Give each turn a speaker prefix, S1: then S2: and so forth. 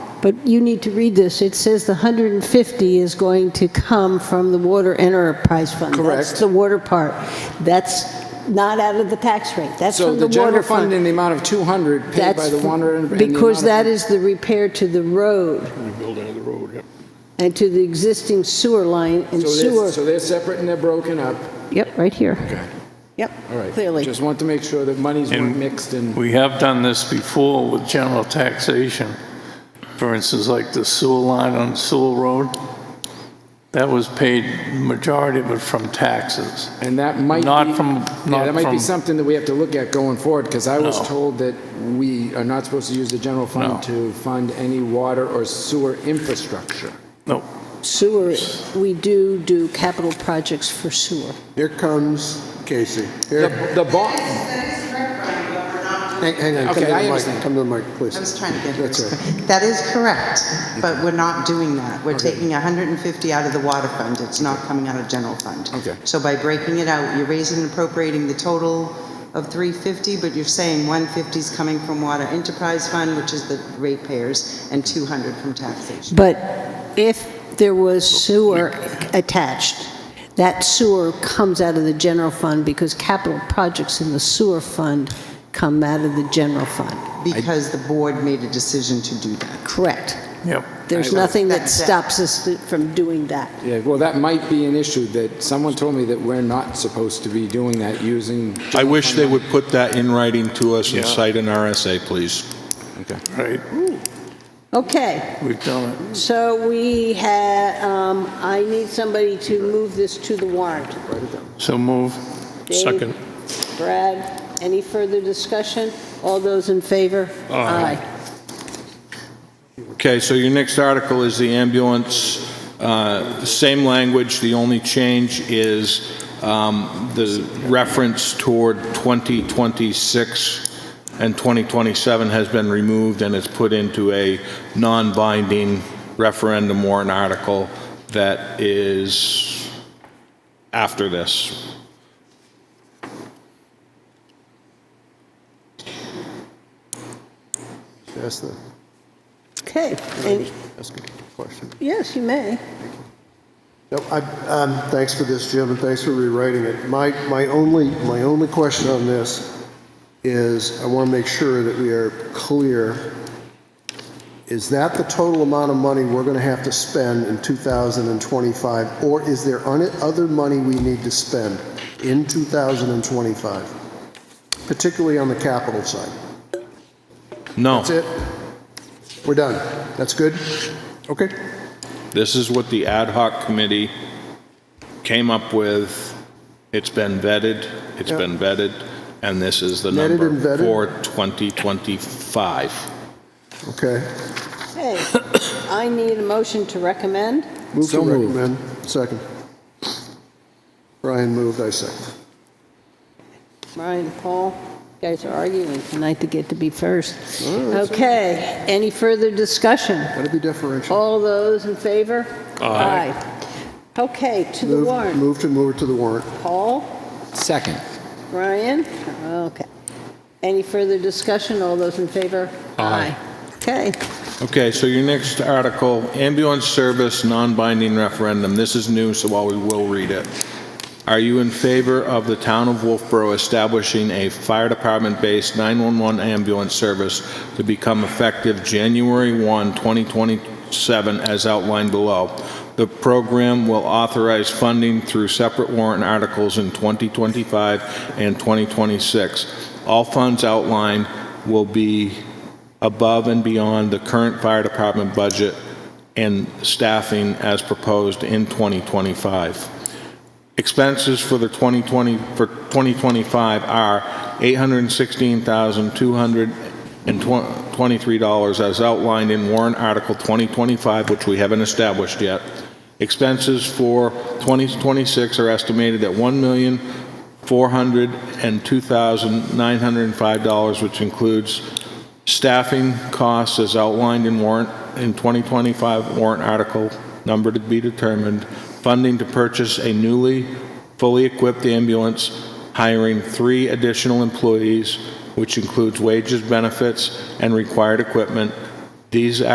S1: But you need to read this. It says the 150 is going to come from the water enterprise fund. That's
S2: Correct.
S1: the water part. That's not out of the tax rate. That's
S2: So
S1: from the
S2: the
S1: water
S2: general fund in
S1: fund.
S2: the amount of 200 paid by
S1: That's
S2: the water and. and the
S1: Because that
S2: amount of-
S1: is the repair to the road
S3: Rebuilding of the road, yep.
S1: and to the existing sewer line and
S2: So they're-
S1: sewer.
S2: So they're separate and they're broken up.
S1: Yep, right here.
S2: Okay.
S1: Yep,
S2: All right.
S1: clearly.
S2: Just want to make sure that monies weren't
S3: And-
S2: mixed and.
S3: We have done this before with general taxation. For instance, like the sewer line on Sewell Road, that was paid, majority of it from taxes.
S2: And that might be...
S3: Not from-
S2: Yeah,
S3: not
S2: that might be
S3: from-
S2: something that we have to look at going forward, because I was
S3: No.
S2: told that we are not supposed to use the general
S3: No.
S2: fund to fund any water or sewer infrastructure.
S3: No,
S1: Sewer, we do do capital projects for sewer.
S4: Here comes Casey.
S2: The
S4: Here,
S2: the bond,
S5: That is correct, Brian, but we're not
S4: hang
S5: doing,
S4: hang on, come
S2: Okay,
S4: to
S2: I
S4: the
S2: understand.
S4: mic, come to the mic,
S5: I was
S4: please.
S5: trying to get
S4: That's all
S5: this. That is correct, but we're not doing that. We're taking 150 out of the water fund. It's not coming out of general fund.
S2: Okay.
S5: So by breaking it out, you're raising and appropriating the total of 350, but you're saying 150 is coming from water enterprise fund, which is the ratepayers, and 200 from taxation.
S1: But if there was sewer attached, that sewer comes out of the general fund because capital projects in the sewer fund come out of the general fund.
S5: Because the board made a decision to do that.
S1: Correct.
S3: yep.
S1: There's nothing that
S5: That's it.
S1: stops us th- from doing that.
S2: yeah, well, that might be an issue, that someone told me that we're not supposed to be doing that using...
S6: I wish they would put that in writing to us and
S3: Yeah.
S6: cite an RSA, please.
S2: Okay.
S3: Right,
S1: Okay,
S3: we've done it.
S1: so we had, um, I need somebody to move this to the warrant.
S3: So move.
S1: Dave, Brad, any further discussion? All those in favor?
S6: Aye. Okay, so your next article is the ambulance, uh, same language, the only change is um, the reference toward 2026 and 2027 has been removed and it's put into a non-binding referendum warrant article that is after this.
S4: Ask the,
S1: Okay, and,
S4: ask a question.
S1: yes, you may.
S4: No, I, um, thanks for this, Jim, and thanks for rewriting it. My, my only, my only question on this is, I want to make sure that we are clear. Is that the total amount of money we're going to have to spend in 2025? Or is there un- other money we need to spend in 2025? Particularly on the capital side?
S6: No,
S4: That's it? We're done. That's good? Okay.
S6: this is what the ad hoc committee came up with. It's been vetted, it's
S4: Yeah.
S6: been vetted, and this is the
S4: Vetted and
S6: number
S4: vetted?
S6: for 2025.
S4: Okay.
S1: Okay, I need a motion to recommend.
S4: Move to
S2: So moved.
S4: recommend. Second. Brian moved, I second.
S1: Brian, Paul, you guys are arguing tonight to get to be first. Okay, any further discussion?
S4: Gotta be differential.
S1: All those in favor? Aye. Okay, to the
S4: Move-
S1: warrant.
S4: Move to move it to the warrant.
S1: Paul,
S2: Second.
S1: Brian, okay. Any further discussion? All those in favor? Aye. Okay,
S6: Okay, so your next article, ambulance service, non-binding referendum. This is new, so while we will read it. Are you in favor of the town of Wolfboro establishing a fire department-based 911 ambulance service to become effective January 1, 2027, as outlined below? The program will authorize funding through separate warrant articles in 2025 and 2026. All funds outlined will be above and beyond the current fire department budget and staffing as proposed in 2025. Expenses for the 2020, for 2025 are $816,223 as outlined in warrant article 2025, which we haven't established yet. Expenses for 2026 are estimated at $1,402,905, which includes Staffing costs as outlined in warrant, in 2025 warrant article, number to be determined, funding to purchase a newly fully equipped ambulance, hiring three additional employees, which includes wages, benefits, and required equipment. These